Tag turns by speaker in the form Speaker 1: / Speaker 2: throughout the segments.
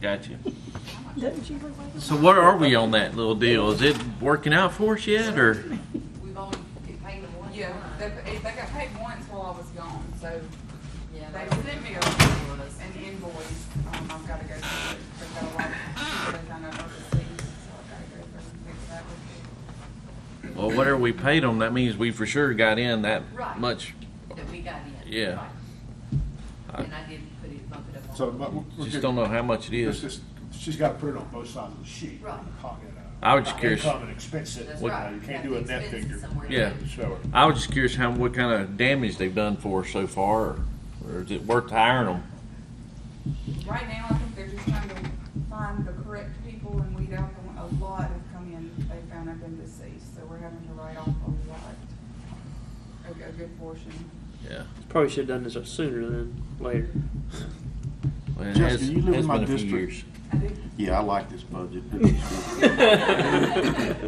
Speaker 1: Got you. So where are we on that little deal? Is it working out for us yet, or?
Speaker 2: We've only been paid the one.
Speaker 3: Yeah, they, they got paid once while I was gone, so
Speaker 2: Yeah,
Speaker 3: they
Speaker 2: they
Speaker 3: sent me a, an invoice, um, I've gotta go through, it. they've got a lot of, they've done it overseas, so I've gotta go through and fix that with
Speaker 1: Well, whatever we paid them, that means we for sure got in that
Speaker 2: Right.
Speaker 1: much.
Speaker 2: that we got in.
Speaker 1: Yeah.
Speaker 2: Right.
Speaker 1: I-
Speaker 2: And I did put it, bump it up. on-
Speaker 4: So, but we we're
Speaker 1: Just
Speaker 4: good.
Speaker 1: don't know how much it
Speaker 4: It's
Speaker 1: is.
Speaker 4: just, she's gotta put it on both sides of the sheet.
Speaker 2: Right.
Speaker 4: Call it, uh,
Speaker 1: I was just curious.
Speaker 4: Income and expense it,
Speaker 2: That's
Speaker 4: you
Speaker 2: right.
Speaker 4: know, you
Speaker 2: Got
Speaker 4: can't do
Speaker 2: the
Speaker 4: a net
Speaker 2: expenses
Speaker 4: figure.
Speaker 2: somewhere.
Speaker 1: Yeah.
Speaker 4: Show it.
Speaker 1: I was just curious how, what kind of damage they've done for us so far, or, or is it worth hiring them?
Speaker 3: it. Right now, I think they're just trying to find the correct people and weed out the, one- a lot have come in, they found have been deceased, so we're having to write off a lot. A, a good portion.
Speaker 1: Yeah.
Speaker 5: Probably should have done this sooner than later.
Speaker 1: Well, it
Speaker 6: Jessica,
Speaker 1: has-
Speaker 6: you live in
Speaker 1: has
Speaker 6: my
Speaker 1: been a few
Speaker 6: district.
Speaker 1: years.
Speaker 3: I do,
Speaker 6: Yeah, I like this budget.
Speaker 3: I do.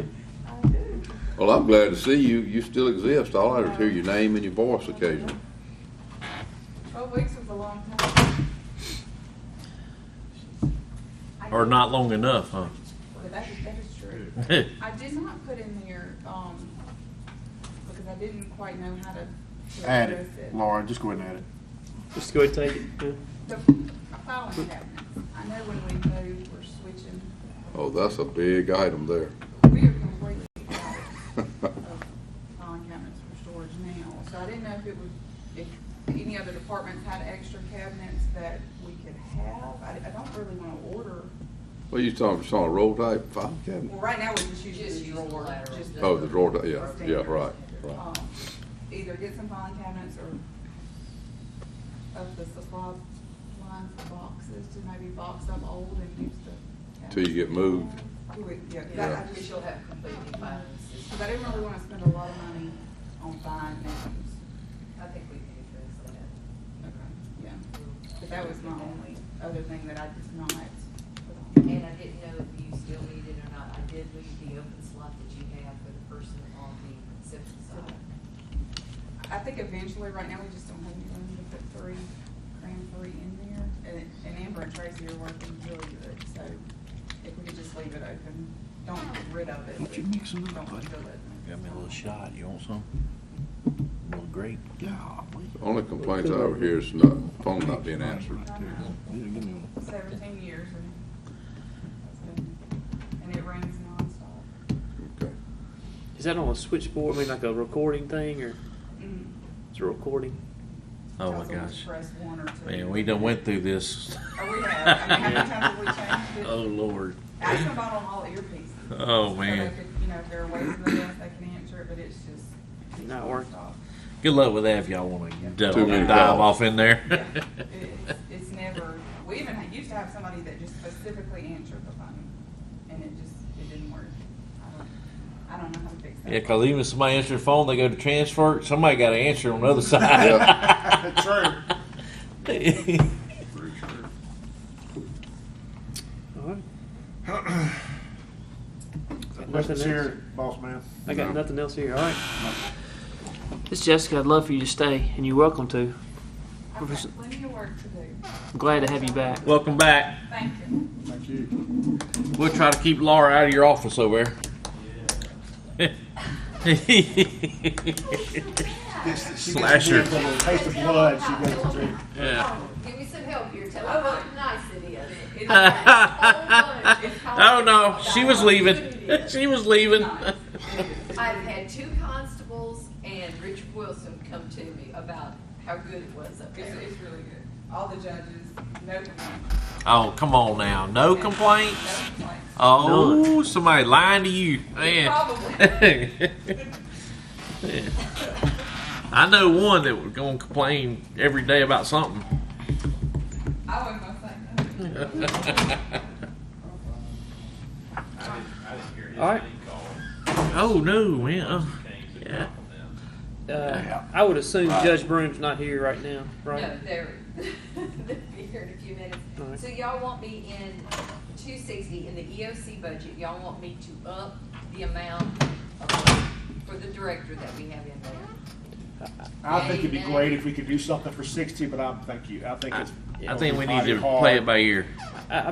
Speaker 7: Well, I'm glad to see you. You still exist. All I hear is your name and your voice occasionally.
Speaker 3: Twelve weeks was a long time,
Speaker 1: Or not long enough, huh?
Speaker 3: but that is, that is true. I did not put in there, um, because I didn't quite know how to. to
Speaker 6: Add
Speaker 3: address
Speaker 6: it, Laura, just go ahead and add it.
Speaker 5: Just go ahead and take it.
Speaker 3: The
Speaker 5: yeah.
Speaker 3: filing cabinets, I know when we move, we're switching,
Speaker 7: Oh, that's a big item there.
Speaker 3: we are completely out of filing cabinets for storage now. So I didn't know if it was, if any other departments had extra cabinets that we could have. I, I don't really wanna order,
Speaker 7: Well, you talking, talking a roll type file
Speaker 3: well,
Speaker 7: cabinet?
Speaker 3: right now, we're just
Speaker 2: Just
Speaker 3: using
Speaker 2: use
Speaker 3: the
Speaker 2: the
Speaker 3: drawer.
Speaker 2: lateral.
Speaker 3: just
Speaker 7: Oh, the drawer, type, yeah, yeah, right, right.
Speaker 3: um, either get some filing cabinets or of the supply line for boxes to maybe box up old and use the.
Speaker 7: Till you get moved.
Speaker 3: Do it, yeah,
Speaker 2: Yeah,
Speaker 3: that, I
Speaker 2: because
Speaker 3: just,
Speaker 2: she'll have completely fine.
Speaker 3: cause I didn't really wanna spend a lot of money on buying names.
Speaker 2: I think we can address that.
Speaker 3: Okay. Yeah, but that was my only other thing that I did not put on.
Speaker 2: And I didn't know if you still need it or not. I did leave the open slot that you have for the person on the reception side.
Speaker 3: I think eventually, right now, we just don't have any room to put three, cram three in there, and, and Amber and Tracy are working really good, so if we could just leave it open, don't get rid of it.
Speaker 6: Why don't you
Speaker 3: but
Speaker 6: mix 'em up,
Speaker 3: don't
Speaker 6: buddy?
Speaker 3: fill it.
Speaker 1: Got me a little shot. You want some? A little grape?
Speaker 6: Golly.
Speaker 7: Only complaints I ever hear is not, phone not being answered.
Speaker 6: Right there. Yeah, give me one.
Speaker 3: Seventeen years, and that's been, and it rains nonstop.
Speaker 7: Okay.
Speaker 5: Is that on a switchboard? I mean, like a recording thing, or
Speaker 3: Mm.
Speaker 5: it's a recording?
Speaker 1: Oh my
Speaker 3: Also, we
Speaker 1: gosh.
Speaker 3: press one or two.
Speaker 1: Man, we done went through this.
Speaker 3: Oh, we have. I mean, how many times have we changed it?
Speaker 1: Oh, Lord.
Speaker 3: I can buy them all earpieces.
Speaker 1: Oh,
Speaker 3: So they
Speaker 1: man.
Speaker 3: could, You know, if there are ways in the best they can answer it, but it's just. it's
Speaker 5: Not working.
Speaker 3: nonstop.
Speaker 1: Good luck with that if y'all want to
Speaker 7: Too many
Speaker 1: dive
Speaker 7: calls.
Speaker 1: off in there.
Speaker 3: Yeah. It's, it's never, we even had- used to have somebody that just specifically answered the phone, and it just, it didn't work. I don't, I don't know how to fix that.
Speaker 1: Yeah, because even if somebody answers the phone, they go to transfer. Somebody got to answer on the other side. True.
Speaker 5: All right. Nothing
Speaker 4: Let's
Speaker 5: else?
Speaker 4: hear it, boss man.
Speaker 5: I got
Speaker 7: No.
Speaker 5: nothing else here. All right. This Jessica. I'd love for you to stay, and you're welcome to.
Speaker 3: I've got plenty of work to do.
Speaker 5: I'm glad to have you back.
Speaker 1: Welcome back.
Speaker 3: Thank you.
Speaker 4: Thank you.
Speaker 1: We'll try to keep Laura out of your office over there.
Speaker 4: Last
Speaker 1: Slasher.
Speaker 4: year. Taste of blood, she gets to drink.
Speaker 1: Yeah.
Speaker 2: Give me some help here. Tell her how nice it is. Oh, It's nice. It's how
Speaker 1: oh no,
Speaker 2: nice.
Speaker 1: she was leaving.
Speaker 2: It is.
Speaker 1: She was leaving.
Speaker 2: I've had two constables and Richard Wilson come to me about how good it was up
Speaker 3: It's,
Speaker 2: there.
Speaker 3: it's really good. All the judges, no complaints.
Speaker 1: Oh come on now, no complaints.
Speaker 3: No complaints.
Speaker 1: Oh, somebody lying to you,
Speaker 3: Probably.
Speaker 1: man. I know one that was gonna complain every day about something.
Speaker 3: I wouldn't want to say nothing.
Speaker 5: All right.
Speaker 1: oh no, man. Yeah.
Speaker 5: Uh, I would assume Judge Broom's not here right now, right?
Speaker 2: No, they're, they'll be here in a few
Speaker 5: All right.
Speaker 2: minutes. So y'all want me in two sixty, in the EOC budget, y'all want me to up the amount of- for the director that we have in there?
Speaker 4: I think it'd be great if we could do something for sixty, but I, thank you, I think it's.
Speaker 1: I think we need to play it by ear.